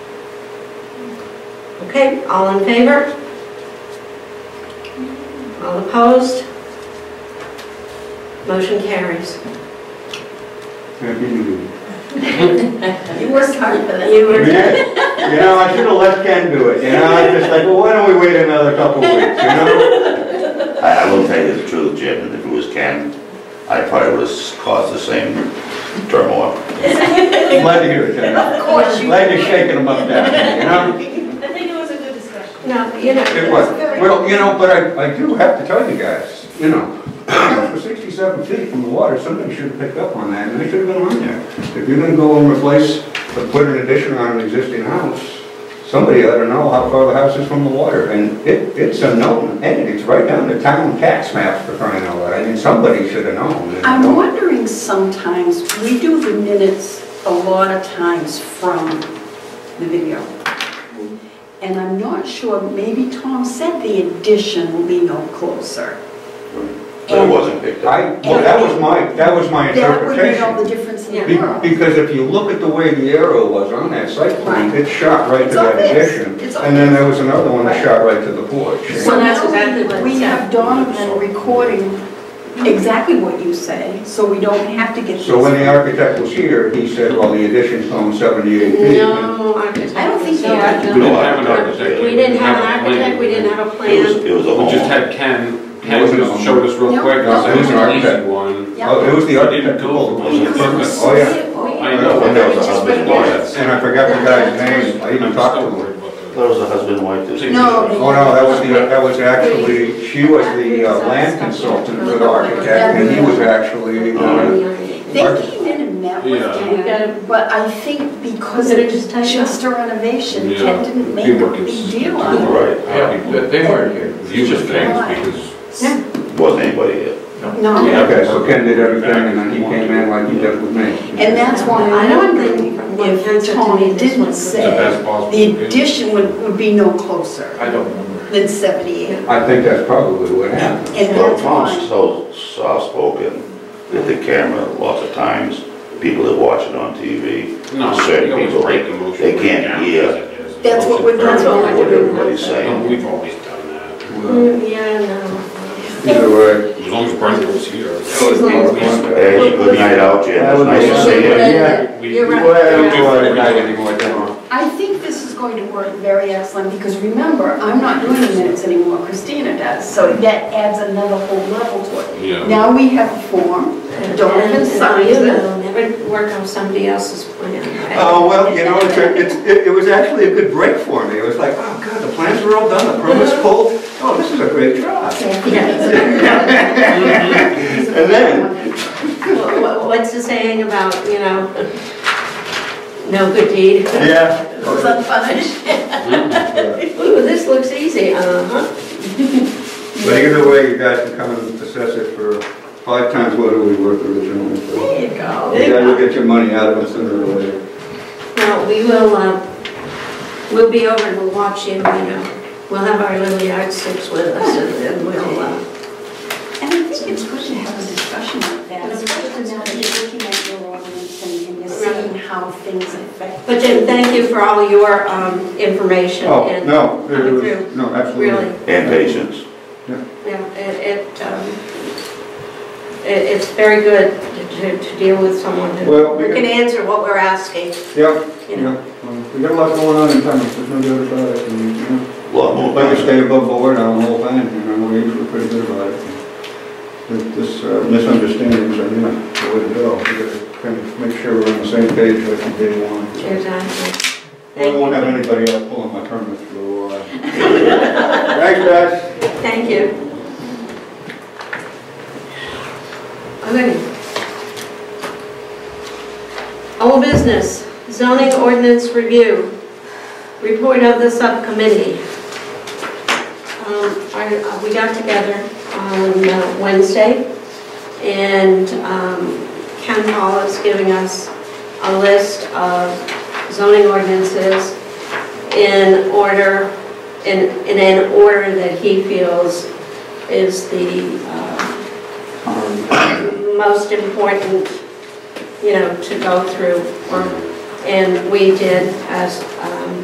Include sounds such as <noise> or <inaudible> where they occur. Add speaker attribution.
Speaker 1: Okay, all in favor? All opposed? Motion carries.
Speaker 2: Happy New Year.
Speaker 3: You worked hard for that.
Speaker 1: You were,
Speaker 2: You know, I should have let Ken do it, you know, I just like, well, why don't we wait another couple weeks, you know?
Speaker 4: I, I will tell you the truth, Jim, and if it was Ken, I probably would have caused the same turmoil.
Speaker 2: Glad to hear
Speaker 1: <laughs>
Speaker 2: it, Ken.
Speaker 3: Of course you.
Speaker 2: Glad you're shaking them up down, there, you know?
Speaker 5: I think it was a good discussion.
Speaker 1: no, you know.
Speaker 2: It was, well, you know, but I, I do have to tell you guys, you know, <coughs> for sixty-seven feet from the water, somebody should have picked up on that, and they should have been on there. If you're gonna go and replace, or put an addition on an existing house, somebody ought to know how far the house is from the water, and it, it's a known, and it's right down the town tax map for crying out loud, I mean, somebody should have known. and-
Speaker 6: I'm wondering sometimes, we do the minutes a lot of times from the video. And I'm not sure, maybe Tom said the addition will be no closer.
Speaker 4: But it wasn't picked up.
Speaker 2: I, well, that was my, that was my
Speaker 6: That would make all the
Speaker 2: interpretation.
Speaker 6: difference in
Speaker 2: Be-
Speaker 6: the world.
Speaker 2: Because if you look at the way the arrow was on that site plan, it shot right to
Speaker 6: It's
Speaker 2: that
Speaker 6: obvious.
Speaker 2: addition.
Speaker 6: It's
Speaker 2: And then there was another one that shot right to the porch.
Speaker 6: So
Speaker 3: Well, that's exactly
Speaker 6: now
Speaker 3: what
Speaker 6: we
Speaker 3: it said.
Speaker 6: have Donovan recording exactly what you say, so we don't have to get.
Speaker 2: So when
Speaker 6: these-
Speaker 2: the architect was here, he said, well, the addition's only 78 feet.
Speaker 1: No architect.
Speaker 3: I don't think
Speaker 1: no
Speaker 3: they
Speaker 1: architect.
Speaker 3: are.
Speaker 7: We didn't have an architect.
Speaker 1: We didn't have an architect, we didn't have
Speaker 7: a plan.
Speaker 1: a
Speaker 4: It was,
Speaker 1: plan.
Speaker 4: it was a
Speaker 7: We just
Speaker 4: home.
Speaker 7: had Ken,
Speaker 2: It
Speaker 7: Ken
Speaker 2: was an
Speaker 7: just showed us real
Speaker 6: No,
Speaker 7: quick,
Speaker 6: no,
Speaker 7: I
Speaker 6: it
Speaker 7: was
Speaker 6: was an
Speaker 7: an
Speaker 2: architect.
Speaker 7: easy one.
Speaker 6: Yeah.
Speaker 2: Oh, it was the
Speaker 7: I didn't
Speaker 2: architect that
Speaker 7: go.
Speaker 2: pulled the
Speaker 6: Because it was
Speaker 2: permit.
Speaker 6: so
Speaker 2: Oh, yeah.
Speaker 6: simple.
Speaker 7: I know,
Speaker 4: And
Speaker 7: that
Speaker 4: there was a husband and wife.
Speaker 7: was-
Speaker 2: And I forgot the guy's name, I even
Speaker 7: I'm
Speaker 2: talked to
Speaker 7: still
Speaker 2: him.
Speaker 7: worried about that.
Speaker 4: There was a husband and wife. that-
Speaker 6: No.
Speaker 2: Oh, no, that was the, that was actually, she was the uh, land consultant for the architect, and he was actually, uh,
Speaker 6: They came in and met with
Speaker 7: Yeah.
Speaker 6: Ken, but I think because
Speaker 1: Did it
Speaker 6: it was
Speaker 1: just take
Speaker 6: just a renovation,
Speaker 7: Yeah.
Speaker 6: Ken didn't make
Speaker 7: He
Speaker 6: a
Speaker 7: worked
Speaker 6: big
Speaker 7: his-
Speaker 6: deal on it.
Speaker 4: Right.
Speaker 7: Yeah,
Speaker 8: They weren't here.
Speaker 7: you just came because.
Speaker 4: Wasn't anybody here.
Speaker 6: No,
Speaker 2: okay, so Ken did everything, and then he came in like he did with me.
Speaker 6: and that's why
Speaker 1: I
Speaker 6: I'm
Speaker 1: don't
Speaker 6: wondering
Speaker 1: think from one
Speaker 6: if
Speaker 1: pencil to me
Speaker 6: Tony
Speaker 1: this
Speaker 6: didn't
Speaker 1: one's
Speaker 7: It's the
Speaker 6: say
Speaker 7: best possible.
Speaker 6: the
Speaker 7: opinion.
Speaker 6: addition would, would be no closer
Speaker 8: I don't remember.
Speaker 6: than 78.
Speaker 2: I think that's probably what happened.
Speaker 6: And
Speaker 4: Well,
Speaker 6: that's
Speaker 4: Tom's
Speaker 6: why,
Speaker 4: so soft-spoken with the camera lots of times, people that watch it on TV.
Speaker 7: No,
Speaker 4: certain
Speaker 7: you always
Speaker 4: people,
Speaker 7: break the motion.
Speaker 4: they can't
Speaker 7: down
Speaker 4: hear.
Speaker 7: as it is.
Speaker 6: That's what we're- that's what
Speaker 1: we're
Speaker 4: What
Speaker 1: doing.
Speaker 4: everybody's
Speaker 7: No,
Speaker 4: saying.
Speaker 7: We've always done that.
Speaker 1: Mm, Yeah, no.
Speaker 2: Either way.
Speaker 7: As long as Brenda was here.
Speaker 4: Hey, it's a good night out, Jim, it's nice to see you.
Speaker 2: Yeah.
Speaker 7: We-
Speaker 1: You're right.
Speaker 2: Well, I don't go out at night anymore, don't I?
Speaker 6: I think this is going to work very excellent, because remember, I'm not doing the minutes anymore, Christina does, so that adds another whole level to it.
Speaker 7: Yeah.
Speaker 6: Now we have a form, Donovan
Speaker 1: And,
Speaker 6: signs
Speaker 1: you
Speaker 6: it.
Speaker 1: know, Never work on somebody else's plan. right?
Speaker 2: Oh, well, you know, it's a- it's, it, it was actually a good break for me. It was like, oh, God, the plans were all done, the permit's pulled. Oh, this is a great job.
Speaker 1: <laughs> Yeah.
Speaker 2: And then,
Speaker 1: Wha- wha- What's the saying about, you know, no good deed?
Speaker 2: yeah.
Speaker 6: goes unpunished.
Speaker 2: Mm-hmm.
Speaker 1: Ooh, this looks easy, uh-huh.
Speaker 2: But either way, you guys can come and assess it for five times what it was worth originally. so
Speaker 6: There you go.
Speaker 2: You guys will get your money out of it sooner or later.
Speaker 1: Now, we will, uh, we'll be over and we'll watch you, you know. We'll have our little yardsticks with us and then we'll, uh,
Speaker 6: And I think it's good to have a discussion like that,
Speaker 3: And
Speaker 6: especially now that you're looking at your ordinance and and you're seeing how things affect.
Speaker 1: but Jim, thank you for all your um, information.
Speaker 2: Oh,
Speaker 1: and-
Speaker 2: no,
Speaker 1: coming
Speaker 2: it was-
Speaker 1: through.
Speaker 2: no, absolutely.
Speaker 1: Really,
Speaker 4: And patience.
Speaker 1: yeah, it, it, um, it- it's very good to- to to deal with someone
Speaker 2: Well,
Speaker 1: who
Speaker 2: we
Speaker 1: who can answer what we're asking,
Speaker 2: Yep,
Speaker 1: you know.
Speaker 2: yep. We got a lot going on in town, there's no doubt about it. and, you know,
Speaker 4: A Lot more.
Speaker 2: Like I stay above board on the whole thing, you know, we're usually pretty good about it. But This uh, misunderstandings are not the way to go. We gotta kind of make sure we're on the same page like from day one.
Speaker 1: Exactly.
Speaker 2: I won't have anybody else pulling my permit through. uh, <laughs> Thanks, guys.
Speaker 1: Thank you. Okay. Old business, zoning ordinance review, report of the subcommittee. Um, I- uh, We got together on uh, Wednesday, and um, Ken Hall is giving us a list of zoning ordinances in order in, in an order that he feels is the uh, most important, you know, to go through. or- And we did as um,